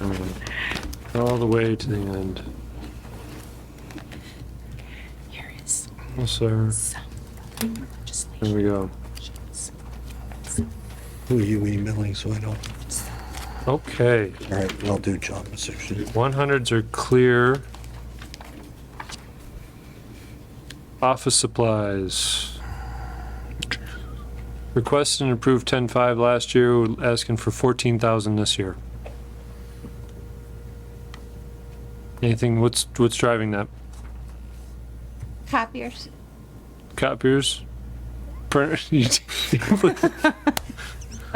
I mean, all the way to the end. Here is Yes, sir. some fucking Here legislation. we go. Who are you emailing so I don't? Okay, All right, I'll do job description. 100s are clear. Office supplies. Requested and approved 10.5 last year, We're asking for 14,000 this year. Anything, what's, what's driving that? Copiers. Copiers? Printers?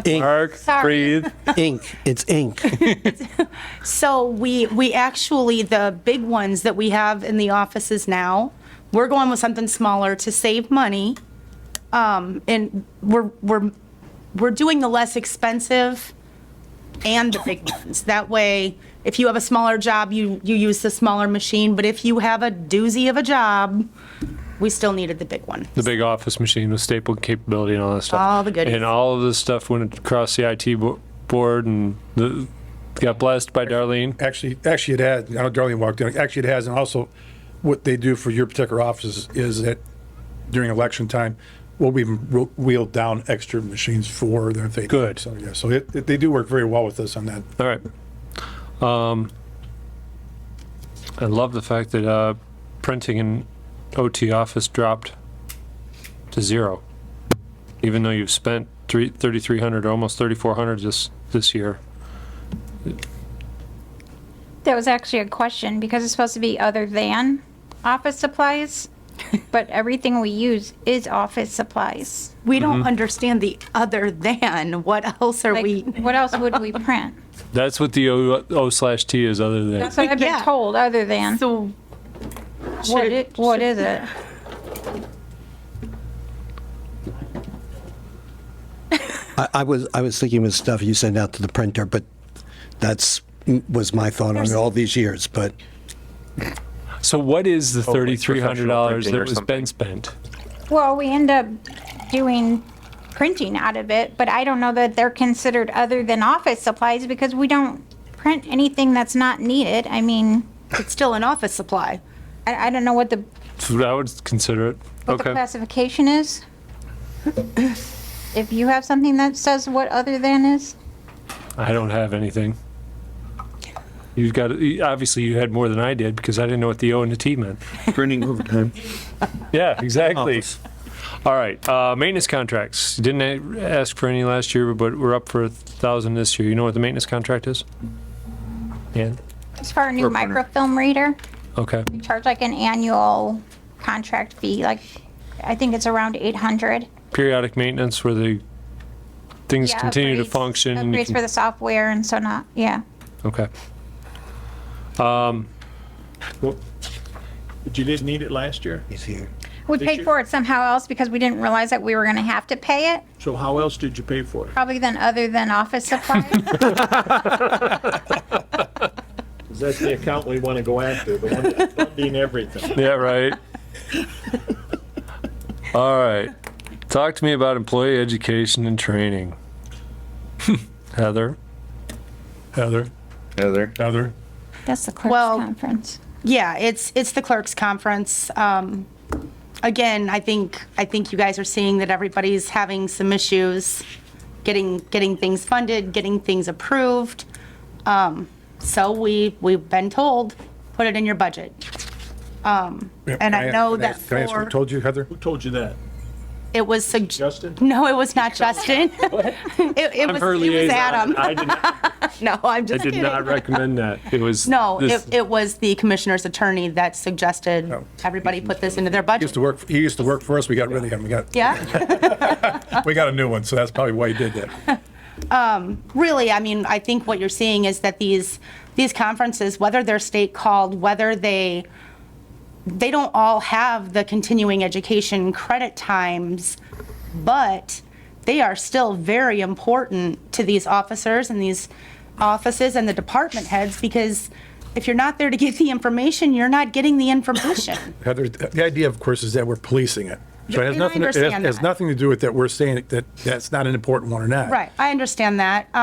Mark, Sorry. breathe. Ink, it's ink. So we, we actually, the big ones that we have in the offices now, we're going with something smaller to save money. Um, and we're, we're, we're doing the less expensive and the big ones. That way, if you have a smaller job, you, you use the smaller machine, but if you have a doozy of a job, we still needed the big one. the big office machine with staple capability and all that stuff. All the goodies. And all of this stuff went across the IT bo- board and the, got blessed by Darlene. Actually, actually it has, I know Darlene walked in, actually it has, and also what they do for your particular offices is that during election time, we'll be wheeled down extra machines for their thing. Good. So, yeah, so it, it- they do work very well with us on that. All right. Um, I love the fact that uh, printing in OT office dropped to zero, even though you've spent three, 3,300 or almost 3,400 this, this year. That was actually a question because it's supposed to be other than office supplies, but everything we use is office supplies. We don't understand the other than, what else are Like, we? what else would we print? That's what the O O slash T is other than. That's what I've been Yeah. told. Other than So what, it, what is it? I, I was, I was thinking with stuff you send out to the printer, but that's, was my thought on it all these years, but So what is the like $3,300 that professional printing or was something. been spent? Well, we end up doing printing out of it, but I don't know that they're considered other than office supplies because we don't print anything that's not needed. I mean, it's still an office supply. I, I don't know what the So I would consider it. what the Okay. classification is. if you have something that says what other than is, I don't have anything. You've got, obviously you had more than I did because I didn't know what the O and the T meant. Printing overtime. Yeah, exactly. All right, uh, maintenance contracts. Didn't a- ask for any last year, but we're up for a thousand this year. You know what the maintenance contract is? Yeah, as far as new Or printer. microfilm reader, okay. we charge like an annual contract fee. Like, I think it's around 800. Periodic maintenance where the things Yeah, continue to upgrades- function. and you Upgrades can- for the software and so not, yeah. Okay. But you didn't need it last year. he's here. We Did you- paid for it somehow else because we didn't realize that we were going to have to pay it, So how else did you pay for it? probably then other than office supplies. That's the account we want to go after, the one that's funding everything. Yeah, right. All right. Talk to me about employee education and training. Heather? Heather, Heather. Heather, That's the clerk's Well- conference. Yeah, it's, it's the clerks conference. Um, again, I think, I think you guys are seeing that everybody's having some issues getting, getting things funded, getting things approved. Um, so we, we've been told, put it in your budget. Um, and I know Can that ask- can I ask who for, told you, Heather? Who told you that? it was sug, Justin? no, it was not Justin. It, it was, her it was liaison. Adam. I did not, No, I'm I just did kidding. not recommend that. It was. No, this- it, it was the commissioner's attorney that suggested Oh. everybody put this into their He used budget. to work, he used to work for us, we got rid of him, we got, Yeah, we got a new one, so that's probably why he did that. really, I mean, I think what you're seeing is that these, these conferences, whether they're state called, whether they, they don't all have the continuing education credit times, but they are still very important to these officers and these offices and the department heads because if you're not there to get the information, you're not getting the information. Heather, the idea, of course, is that we're policing it. So it has And I nothing, it has- understand it has that. nothing to do with that we're saying that that's not an important one or not. Right, I understand that.